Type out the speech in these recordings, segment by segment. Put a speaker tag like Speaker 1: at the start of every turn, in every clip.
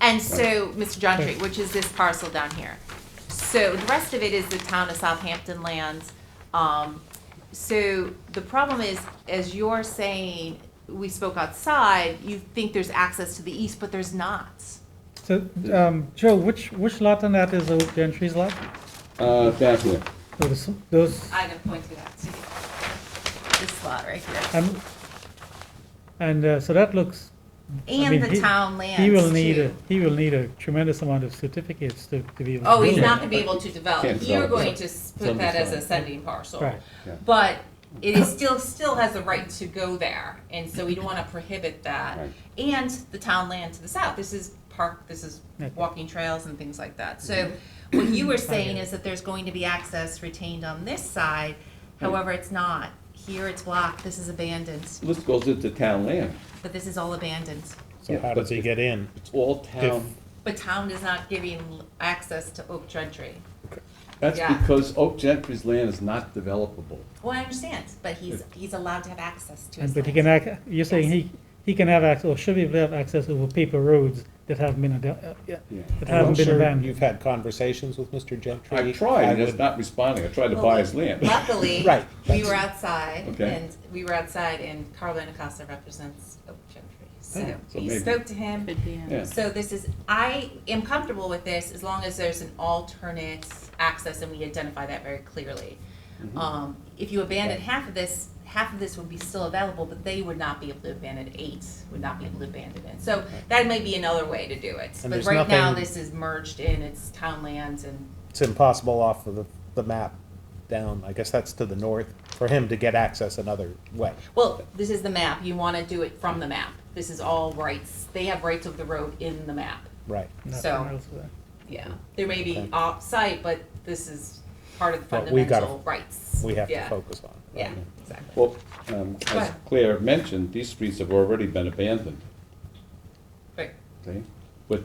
Speaker 1: And so, Mr. John Tree, which is this parcel down here. So the rest of it is the town of Southampton lands. Um, so the problem is, as you're saying, we spoke outside, you think there's access to the east, but there's not.
Speaker 2: So, um, Joe, which, which lot on that is old Gentry's lot?
Speaker 3: Uh, that way.
Speaker 2: Those, those,
Speaker 1: I can point to that too. This lot right here.
Speaker 2: um, and, uh, so that looks, I mean,
Speaker 1: And the
Speaker 2: he-
Speaker 1: town
Speaker 2: he
Speaker 1: lands
Speaker 2: will need a,
Speaker 1: too.
Speaker 2: he will need a tremendous amount of certificates to, to be able to do that.
Speaker 1: Oh, he's not gonna be able to develop.
Speaker 3: Can't
Speaker 1: You're
Speaker 3: develop
Speaker 1: going
Speaker 3: it.
Speaker 1: to s- put that as a sending parcel.
Speaker 2: Right,
Speaker 1: But it is still, still has the right to go there, and so we don't wanna prohibit that.
Speaker 3: Right.
Speaker 1: And the town land to the south, this is park, this is
Speaker 2: Okay.
Speaker 1: walking trails and things like that. So what you were saying is that there's going to be access retained on this side, however, it's not. Here it's blocked, this is abandoned,
Speaker 3: This goes into town land.
Speaker 1: but this is all abandoned.
Speaker 4: So
Speaker 3: Yeah,
Speaker 4: how
Speaker 3: but
Speaker 4: does he
Speaker 3: if-
Speaker 4: get in?
Speaker 3: It's all town.
Speaker 1: But town is not giving access to Oak Gentry.
Speaker 3: That's
Speaker 1: yeah.
Speaker 3: because Oak Gentry's land is not developable.
Speaker 1: Well, I understand, but he's, he's allowed to have access to his
Speaker 2: and, but he
Speaker 1: land.
Speaker 2: can ac you're saying
Speaker 1: Yes.
Speaker 2: he, he can have access, or should be able to have access over paper roads that haven't been, ad- uh, yeah,
Speaker 3: Yeah.
Speaker 2: that
Speaker 4: And I'm
Speaker 2: haven't been
Speaker 4: sure
Speaker 2: abandoned.
Speaker 4: You've had conversations with Mr. Gentry.
Speaker 3: I tried,
Speaker 4: I
Speaker 3: and it's
Speaker 4: would-
Speaker 3: not responding. I tried to buy his land.
Speaker 1: Luckily,
Speaker 4: Right,
Speaker 1: we
Speaker 4: that's-
Speaker 1: were outside,
Speaker 3: Okay.
Speaker 1: and we were outside, and Carlo Nacasa represents Oak Gentry. So
Speaker 3: Oh, so
Speaker 1: we
Speaker 3: maybe.
Speaker 1: spoke to him.
Speaker 3: Yeah.
Speaker 1: So this is, I am comfortable with this as long as there's an alternate access and we identify that very clearly.
Speaker 4: Mm-hmm.
Speaker 1: Um, If you abandon half of this, half of this would be still available, but they would not be able to abandon eight, would not be able to abandon it. So that may be another way to do it.
Speaker 4: And
Speaker 1: But
Speaker 4: there's
Speaker 1: right now,
Speaker 4: nothing-
Speaker 1: this is merged in, it's town lands and
Speaker 4: It's impossible off of the, the map down, I guess that's to the north, for him to get access another way.
Speaker 1: Well, this is the map, you wanna do it from the map, this is all rights, they have rights of the road in the map,
Speaker 4: Right.
Speaker 2: Nothing
Speaker 1: so-
Speaker 2: else there.
Speaker 1: yeah. There may be
Speaker 4: Okay.
Speaker 1: off-site, but this is part of the
Speaker 4: But we gotta-
Speaker 1: fundamental rights.
Speaker 4: We have to
Speaker 1: Yeah,
Speaker 4: focus on. right?
Speaker 1: Yeah, exactly.
Speaker 3: Well, um, as
Speaker 1: ahead.
Speaker 3: Claire mentioned, these streets have already been abandoned,
Speaker 1: Right.
Speaker 3: okay? But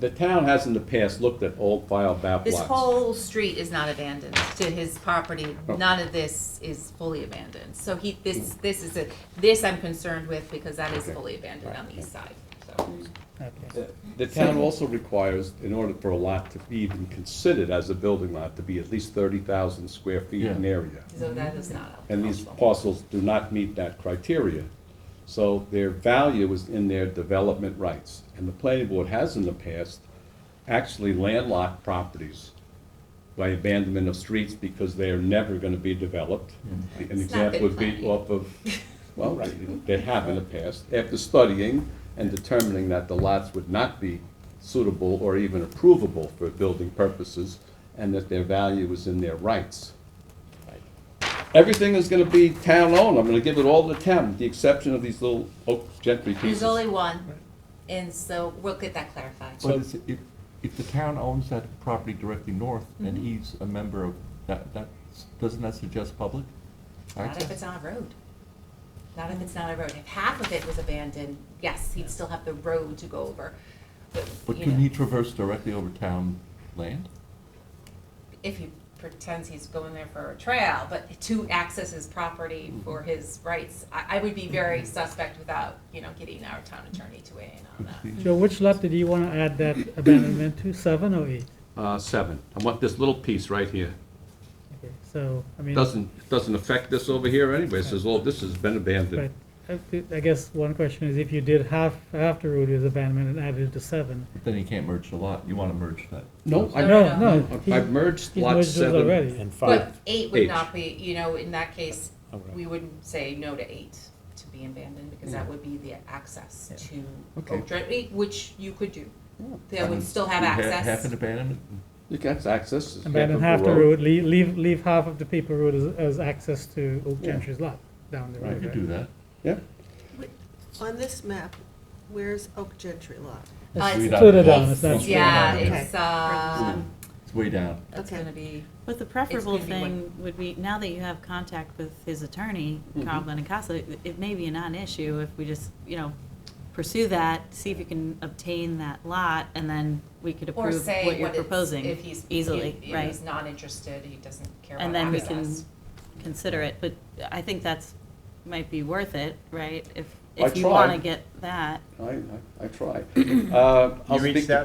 Speaker 3: the town has in the past looked at old file map
Speaker 1: This
Speaker 3: lots.
Speaker 1: whole street is not abandoned to his property,
Speaker 3: Oh.
Speaker 1: none of this is fully abandoned, so he, this,
Speaker 4: Hmm.
Speaker 1: this is a, this I'm concerned with because that is
Speaker 3: Okay.
Speaker 1: fully abandoned on the east side, so.
Speaker 2: Okay.
Speaker 3: The- The town also requires, in order for a lot to be even considered as a building lot, to be at least thirty thousand square feet in area.
Speaker 1: So that is not.
Speaker 3: And these
Speaker 1: possible.
Speaker 3: parcels do not meet that criteria. So their value is in their development rights. And the planning board has in the past actually landlocked properties by abandonment of streets because they are never gonna be developed. An
Speaker 1: Mm-hmm. It's not good
Speaker 3: example would be
Speaker 1: planning.
Speaker 3: off of, well, they have in the past, after studying and determining that the lots would not be suitable or even approvable for building purposes, and that their value is in their rights everything is gonna be town-owned, I'm gonna give it all to the town, with the exception of these little Oak Gentry
Speaker 1: There's
Speaker 3: pieces.
Speaker 1: only one, and so we'll get that clarified.
Speaker 5: But it's- if, if the town owns that property directly north,
Speaker 1: Mm-hmm.
Speaker 5: and he's a member of, that, that, doesn't that suggest public
Speaker 1: Not if
Speaker 5: access?
Speaker 1: it's on a road. Not if it's not a road. If half of it was abandoned, yes, he'd still have the road to go over.
Speaker 5: But
Speaker 1: you
Speaker 5: can
Speaker 1: know,
Speaker 5: he traverse directly over town land?
Speaker 1: If he pretends he's going there for a trail, but to access his property for his rights, I, I would be very suspect without, you know, getting our town attorney to weigh in on that.
Speaker 2: Joe, which lot did you wanna add that abandonment to, seven or eight?
Speaker 3: Uh, seven, I want this little piece right here,
Speaker 2: Okay, So, I mean.
Speaker 3: doesn't, doesn't affect this over here anyway, it says, oh, this has been
Speaker 2: Right.
Speaker 3: abandoned.
Speaker 2: I thi- I guess one question is if you did half, half the road with abandonment and added it to seven.
Speaker 5: But Then he can't merge the lot, you wanna merge that.
Speaker 3: No, I,
Speaker 1: No,
Speaker 2: No, no. he-
Speaker 3: I've merged
Speaker 2: he
Speaker 3: lot
Speaker 2: merged those
Speaker 3: seven.
Speaker 2: already.
Speaker 4: And five,
Speaker 1: But eight would
Speaker 3: Eight.
Speaker 1: not be, you know, in that case,
Speaker 4: All right.
Speaker 1: we would say no to eight to be abandoned, because that would be the access to
Speaker 3: Okay.
Speaker 1: Oak Drive, which you could do. They
Speaker 5: I mean,
Speaker 1: would still have
Speaker 5: you ha- Half
Speaker 1: access.
Speaker 5: an abandonment,
Speaker 3: You can have access. it's
Speaker 2: Abandon half the road, leave, leave, leave half of the paper road as, as access to Oak
Speaker 3: Yeah.
Speaker 2: Gentry's lot down the
Speaker 5: you
Speaker 2: road.
Speaker 5: could
Speaker 2: right?
Speaker 5: do that.
Speaker 3: Yeah,
Speaker 6: On this map, where's Oak Gentry Lot?
Speaker 1: Uh,
Speaker 2: It's
Speaker 1: it's-
Speaker 5: Way
Speaker 2: further
Speaker 5: down.
Speaker 2: down, it's not.
Speaker 5: It's-
Speaker 1: Yeah,
Speaker 5: Okay.
Speaker 1: it's, uh,
Speaker 5: It's way down.
Speaker 1: it's
Speaker 6: Okay.
Speaker 1: gonna be,
Speaker 7: But the preferable
Speaker 1: It's gonna be one- Mm-hmm.
Speaker 7: thing would be, now that you have contact with his attorney, Carl Benincasa, it may be a non-issue if we just, you know, pursue that, see if you can obtain that lot, and then we could
Speaker 1: or
Speaker 7: approve
Speaker 1: say
Speaker 7: what you're
Speaker 1: what it's, if
Speaker 7: proposing
Speaker 1: he's,
Speaker 7: easily,
Speaker 1: if
Speaker 7: right?
Speaker 1: he's not interested, he doesn't care
Speaker 7: And
Speaker 1: about
Speaker 7: then we can
Speaker 1: access.
Speaker 7: consider it, but I think that's, might be worth it, right? If,
Speaker 3: I
Speaker 7: if you want to
Speaker 3: tried.
Speaker 7: get that.
Speaker 3: I, I, I try. Uh, I'll
Speaker 4: You reached
Speaker 3: speak to
Speaker 4: out